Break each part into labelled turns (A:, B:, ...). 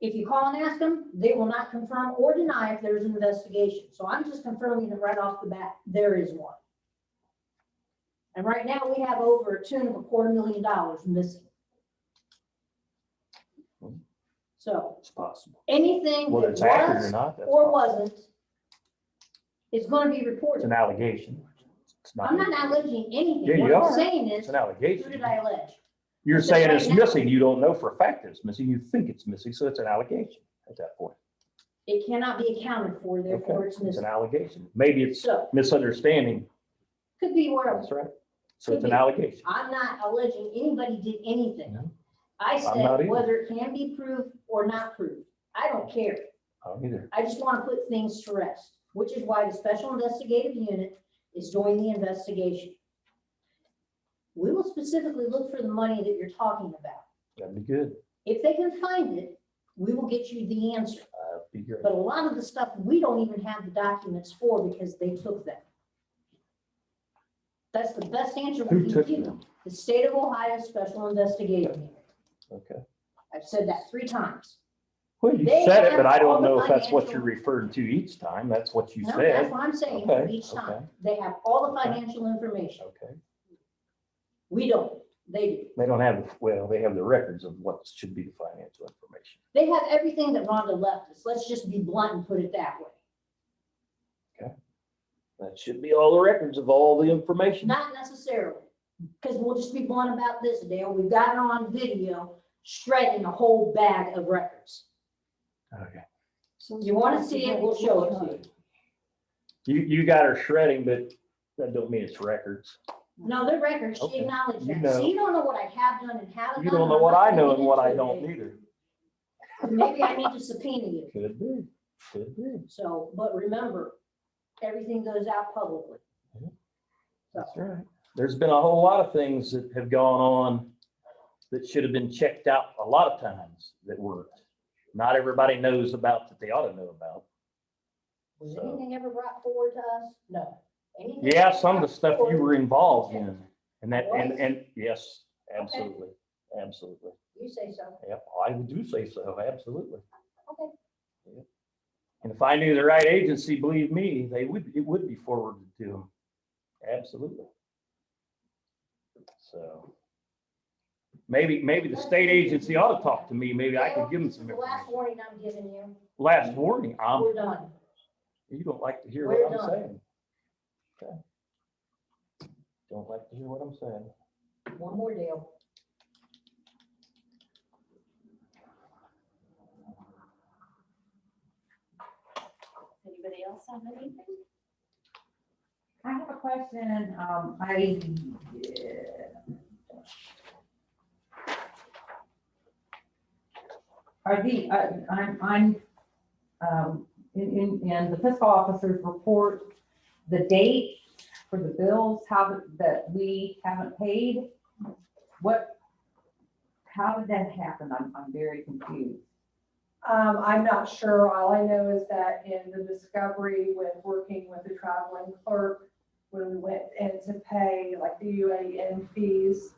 A: If you call and ask them, they will not confirm or deny if there's an investigation. So I'm just confirming it right off the bat, there is one. And right now, we have over a tune of a quarter million dollars missing. So
B: It's possible.
A: anything
B: Whether
A: that
B: it's accurate or
A: was
B: not, that's
A: or
B: possible.
A: wasn't is gonna be
B: It's
A: reported.
B: an allegation. It's
A: I'm not alleging anything.
B: Yeah,
A: What
B: you
A: I'm
B: are.
A: saying is,
B: It's an
A: who did
B: allegation.
A: I allege?
B: You're saying it's
A: Right now-
B: missing. You don't know for a fact that it's missing. You think it's missing, so it's an allegation at that point.
A: It cannot be accounted for, therefore it's
B: It's an
A: missing.
B: allegation. Maybe it's
A: So,
B: misunderstanding.
A: could be where,
B: That's right. So it's an allegation.
A: I'm not alleging anybody did anything.
B: No.
A: I
B: not either.
A: said whether it can be proved or not proved. I don't care.
B: I don't either.
A: I just want to put things to rest, which is why the special investigative unit is doing the investigation. We will specifically look for the money that you're talking about.
B: That'd be good.
A: If they can find it, we will get you the answer.
B: That'd be good.
A: But a lot of the stuff, we don't even have the documents for because they took them. That's the best answer
B: Who
A: we can
B: took
A: give
B: them?
A: you. The state of Ohio Special Investigative Unit.
B: Okay.
A: I've said that three times.
B: Well, you
A: They
B: said it,
A: have
B: but I
A: all
B: don't
A: the
B: know if that's what you're
A: financial-
B: referring to each time. That's what you
A: No, That's
B: said.
A: what I'm saying
B: Okay,
A: each
B: okay.
A: time. They have all the
B: Okay.
A: financial information.
B: Okay.
A: We don't. They do.
B: They don't have, the well, they have the records of what should be the financial information.
A: They have everything that Rhonda left us. Let's just be blunt and put it that way.
B: That should be all the records of all the information.
A: Not necessarily, because we'll just be blunt about this, Dale. We've got it on video shredding a whole bag of records.
B: Okay.
A: You want to see it, we'll show it to you.
B: You, you got her shredding, but that don't mean it's records.
A: No, they're records. She
B: Okay.
A: acknowledged
B: You
A: that. So
B: know.
A: you don't know what I have done and haven't done.
B: You don't
A: and
B: know
A: I'm
B: what
A: not
B: I
A: gonna
B: know
A: get
B: and what I
A: into it
B: don't
A: today.
B: either.
A: Maybe I need to subpoena you.
B: Could be, could be.
A: So, but remember, everything goes out publicly.
B: That's right. There's been a whole lot of things that have gone on that should have been checked out a lot of times that weren't. Not everybody knows about that they ought to know about.
A: Was
B: So-
A: anything ever brought forward to us? No. Anything
B: Yeah,
A: ever
B: some of the
A: brought
B: stuff you
A: forward-
B: were involved in and that, and,
A: Was?
B: and yes, absolutely, absolutely.
A: You say so.
B: Yep, I do say so, absolutely.
A: Okay.
B: And if I knew the right agency, believe me, they would, it would be forwarded to them. Absolutely. So. Maybe, maybe the state agency ought to talk to me. Maybe I
A: Dale,
B: could give them
A: this is
B: some
A: the Last
B: information.
A: warning I'm giving you.
B: Last warning, um,
A: We're done.
B: you don't like to hear
A: We're
B: what I'm
A: done.
B: saying. Okay. Don't like to hear what I'm saying.
A: One more deal.
C: Anybody else have anything?
D: I have a question, um, I. Are the, uh, I'm, I'm, um, in, in, in the fiscal officer's report, the date for the bills, how, that we haven't paid? What, how did that happen? I'm, I'm very confused.
E: Um, I'm not sure. All I know is that in the discovery with working with the traveling clerk, when we went in to pay like the UAN fees,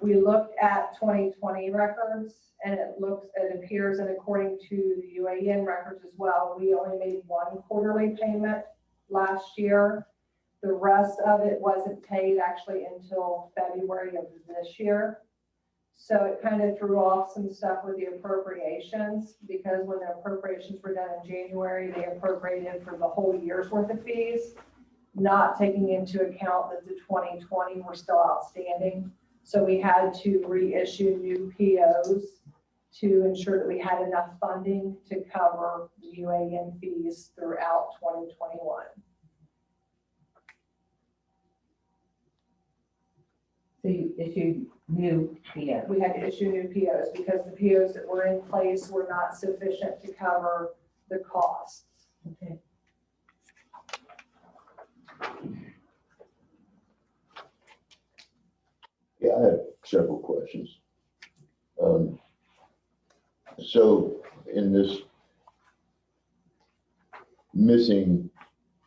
E: we looked at twenty twenty records and it looks, it appears and according to the UAN records as well, we only made one quarterly payment last year. The rest of it wasn't paid actually until February of this year. So it kind of threw off some stuff with the appropriations, because when the appropriations were done in January, they appropriated for the whole year's worth of fees, not taking into account that the 2020 were still outstanding. So we had to reissue new POs to ensure that we had enough funding to cover the UAN fees throughout 2021.
D: So you issued new POs.
E: We had to issue new POs because the POs that were in place were not sufficient to cover the costs.
D: Okay.
F: Yeah, I have several questions. Um, So in this missing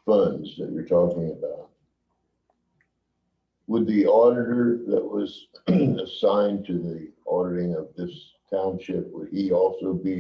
F: funds that you're talking about, would the auditor that was assigned to the auditing of this township, would he also be